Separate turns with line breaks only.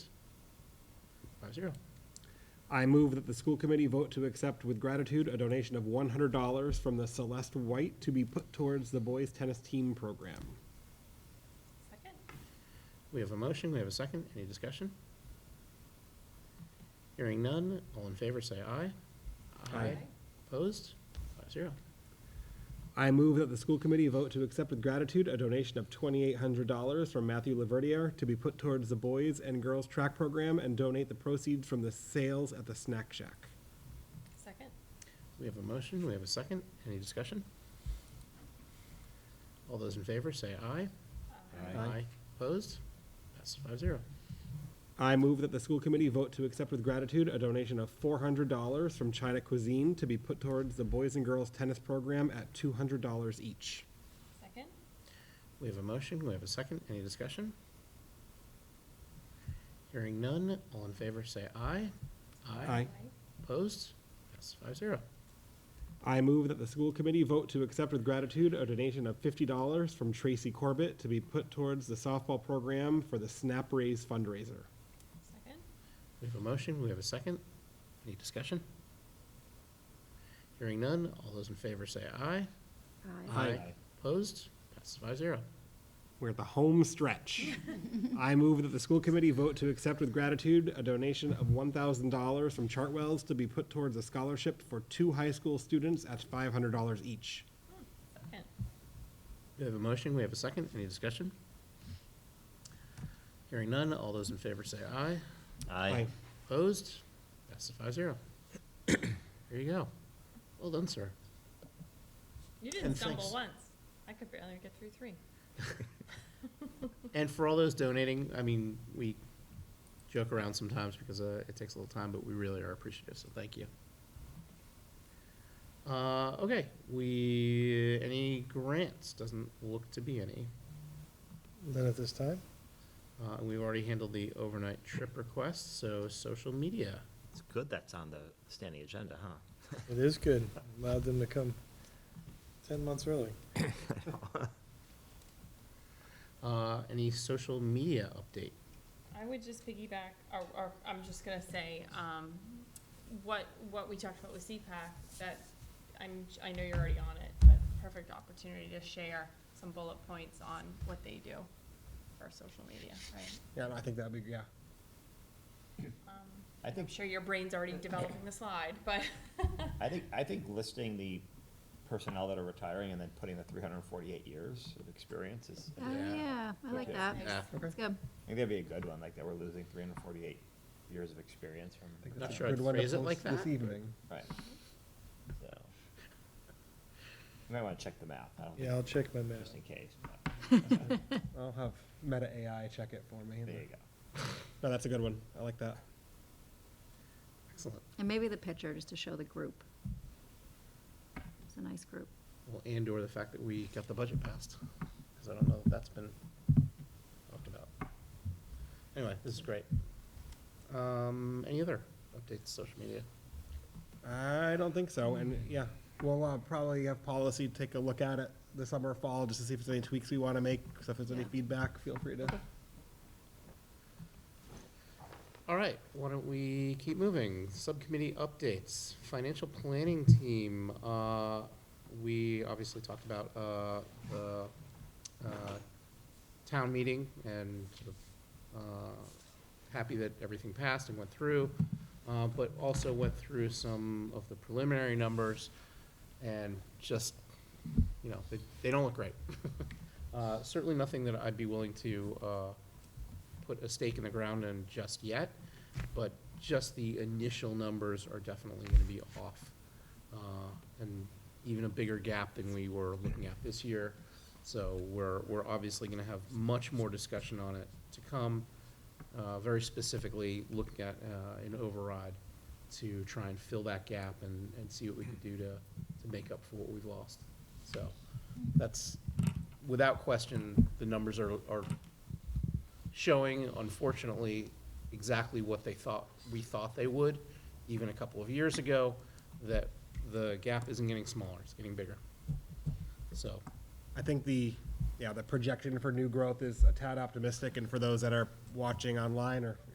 five zero.
I move that the school committee vote to accept with gratitude a donation of one hundred dollars from the Celeste White to be put towards the boys tennis team program.
Second?
We have a motion, we have a second, any discussion? Hearing none, all in favor say aye.
Aye.
Opposed? Five zero.
I move that the school committee vote to accept with gratitude a donation of twenty-eight hundred dollars from Matthew Laverdiere to be put towards the boys and girls track program and donate the proceeds from the sales at the snack shack.
Second?
We have a motion, we have a second, any discussion? All those in favor say aye.
Aye.
Opposed? Passes five zero.
I move that the school committee vote to accept with gratitude a donation of four hundred dollars from China Cuisine to be put towards the boys and girls tennis program at two hundred dollars each.
Second?
We have a motion, we have a second, any discussion? Hearing none, all in favor say aye.
Aye.
Opposed? Passes five zero.
I move that the school committee vote to accept with gratitude a donation of fifty dollars from Tracy Corbett to be put towards the softball program for the Snap Raise fundraiser.
Second?
We have a motion, we have a second. Any discussion? Hearing none, all those in favor say aye.
Aye.
Opposed? Passes five zero.
We're at the home stretch. I move that the school committee vote to accept with gratitude a donation of one thousand dollars from Chartwells to be put towards a scholarship for two high school students at five hundred dollars each.
Second?
We have a motion, we have a second. Any discussion? Hearing none, all those in favor say aye.
Aye.
Opposed? Passes five zero. There you go. Well done, sir.
You didn't
And
stumble
thanks.
once. I could barely get through three.
And for all those donating, I mean, we joke around sometimes because uh, it takes a little time, but we really are appreciative, so thank you. Uh, okay, we, any grants? Doesn't look to be any.
None at this time?
Uh, and we've already handled the overnight trip request, so social media.
It's good that's on the standing agenda, huh?
It is good. Allowed them to come ten months early.
Uh, any social media update?
I would just piggyback, or, or, I'm just gonna say, um, what, what we talked about with CPAC, that, I'm, I know you're already on it, but perfect opportunity to share some bullet points on what they do for social media, right?
Yeah, I think that'd be, yeah.
Um,
I
I'm
think,
sure your brain's already developing the slide, but,
I think, I think listing the personnel that are retiring and then putting the three hundred and forty-eight years of experience is, I
Oh,
Yeah.
yeah, I like
Okay.
that.
Yeah.
That's good.
think that'd be a good one, like that we're losing three hundred and forty-eight years of experience from,
Not sure I'd phrase it like that.
This evening.
right. So. You might wanna check the math, I don't
Yeah,
think,
I'll check my math.
just in case, but,
I'll have Meta AI check it for me.
there you go.
No, that's a good one. I like that.
Excellent.
And maybe the picture, just to show the group. It's a nice group.
Well, and/or the fact that we got the budget passed, because I don't know if that's been talked about. Anyway, this is great. Um, any other updates, social media?
I don't think so, and yeah, we'll uh, probably have policy take a look at it this summer, or fall, just to see if there's any tweaks we want to make. So if there's any
Yeah.
feedback, feel free to.
All right, why don't we keep moving? Subcommittee updates, financial planning team. Uh, we obviously talked about, uh, the, uh, town meeting and sort of, uh, happy that everything passed and went through. Uh, but also went through some of the preliminary numbers and just, you know, they, they don't look great. Uh, certainly nothing that I'd be willing to, uh, put a stake in the ground on just yet, but just the initial numbers are definitely gonna be off. uh, And even a bigger gap than we were looking at this year. So we're, we're obviously gonna have much more discussion on it to come, uh, very specifically looking at uh, an override to try and fill that gap and, and see what we can do to, to make up for what we've lost. So that's, without question, the numbers are, are showing, unfortunately, exactly what they thought, we thought they would, even a couple of years ago, that the gap isn't getting smaller, it's getting bigger. So,
I think the, yeah, the projection for new growth is a tad optimistic, and for those that are watching online or